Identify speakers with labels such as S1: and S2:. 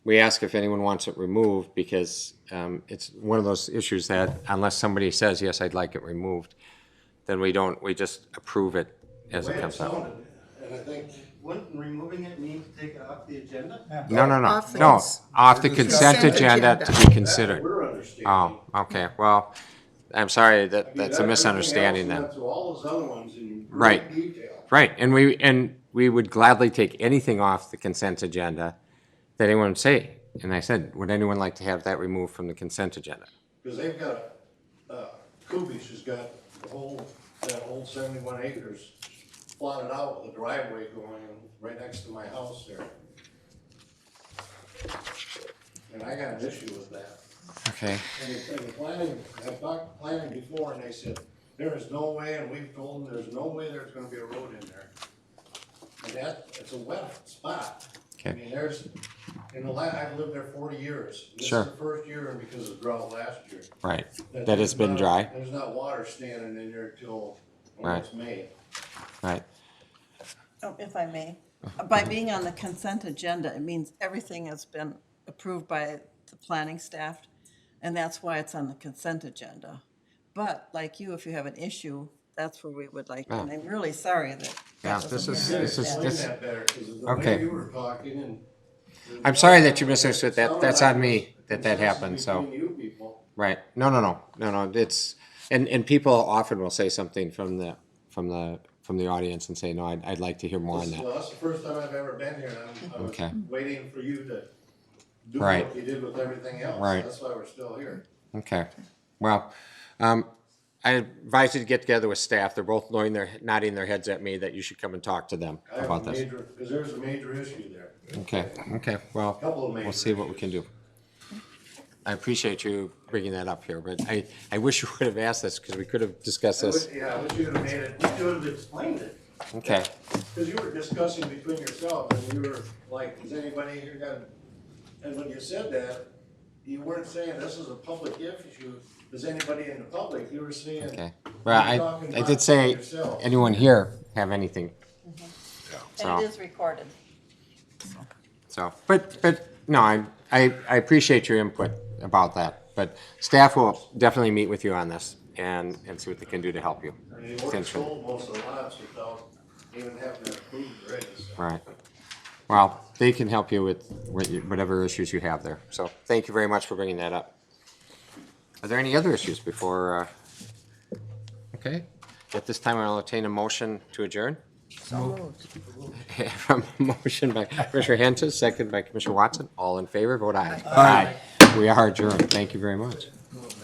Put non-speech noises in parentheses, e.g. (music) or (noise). S1: we ask if anyone wants it removed because um, it's one of those issues that unless somebody says, yes, I'd like it removed, then we don't, we just approve it as it
S2: Way
S1: comes
S2: it's
S1: out.
S2: zoned, And I think, wouldn't removing it mean to take it off the agenda?
S1: No, no, no,
S3: Off
S1: no,
S3: things.
S1: off the consent
S3: Consent
S1: agenda to
S3: agenda.
S1: be
S2: That's what
S1: considered.
S2: We're understanding. I
S1: Oh, okay, well, I'm sorry, that, that's
S2: mean, that-
S1: a
S2: everything
S1: misunderstanding
S2: else
S1: then.
S2: went Through all those other ones in
S1: Right.
S2: great detail.
S1: Right, and we, and we would gladly take anything off the consent agenda that anyone would say. And I said, would anyone like to have that removed from the consent agenda?
S2: Because they've got, uh, Kubish has got the whole, that whole seventy-one acres plotted out with a driveway going right next to my house there. And I got an issue with that.
S1: Okay,
S2: And the, and the planning, I've talked to planning before and they said, there is no way, and we've told them, there's no way there's gonna be a road in there. And that, it's a wet spot. I
S1: Okay.
S2: mean, there's, in the la, I've lived there forty years.
S1: Sure.
S2: This is the first year and because of drought last year.
S1: right, that has been
S2: there's
S1: dry,
S2: not- There's not water standing in there till, well,
S1: Right.
S2: it's May.
S1: right,
S3: Oh, If I may, by being on the consent agenda, it means everything has been approved by the planning staff, and that's why it's on the consent agenda. But like you, if you have an issue, that's where we would like, and I'm really sorry that.
S1: yeah,
S3: that
S1: this
S3: wasn't
S1: is,
S3: there.
S1: this is,
S2: Explain
S1: this,
S2: that better, 'cause the
S1: Okay.
S2: way you were talking and.
S1: I'm sorry that you misunderstood that. That's on me that that
S2: Consensus
S1: happened, so-
S2: between you people.
S1: right, no, no, no, no, no, it's, and, and people often will say something from the, from the, from the audience and say, no, I'd, I'd like to hear more on that.
S2: Well, that's the first time I've ever been here, and I'm, I was
S1: Okay.
S2: waiting for you to do
S1: Right.
S2: what you did with everything else.
S1: Right.
S2: That's why we're still here.
S1: Okay, well, um, I advise you to get together with staff, they're both nodding their, nodding their heads at me that you should come and talk to them
S2: I have
S1: about
S2: a
S1: this.
S2: major, because there's a major issue there,
S1: Okay, okay, well,
S2: couple of
S1: we'll
S2: major
S1: see what we can do. I appreciate you bringing that up here, but I, I wish you would have asked this, because we could have discussed
S2: I wish-
S1: this.
S2: Yeah, I wish you'd have made it, you would have explained it,
S1: Okay,
S2: because you were discussing between yourselves, and you were like, does anybody here got? And when you said that, you weren't saying this is a public issue, is anybody in the public, you were saying.
S1: okay. Well,
S2: You're
S1: I,
S2: talking
S1: I
S2: about
S1: did say,
S2: yourself.
S1: anyone here have anything,
S3: And
S1: So-
S3: it is recorded.
S1: so, but, but, no, I, I, I appreciate your input about that. But staff will definitely meet with you on this and, and see what they can do to help you.
S2: I mean, we're sold most of the lots without even having to approve the regs.
S1: Right. Well, they can help you with what you- whatever issues you have there. So thank you very much for bringing that up. Are there any other issues before, uh, okay? At this time, I'll entertain a motion to adjourn. (laughs) From motion by Commissioner Hentz, second by Commissioner Watson. All in favor, vote aye. Aye. We are adjourned. Thank you very much.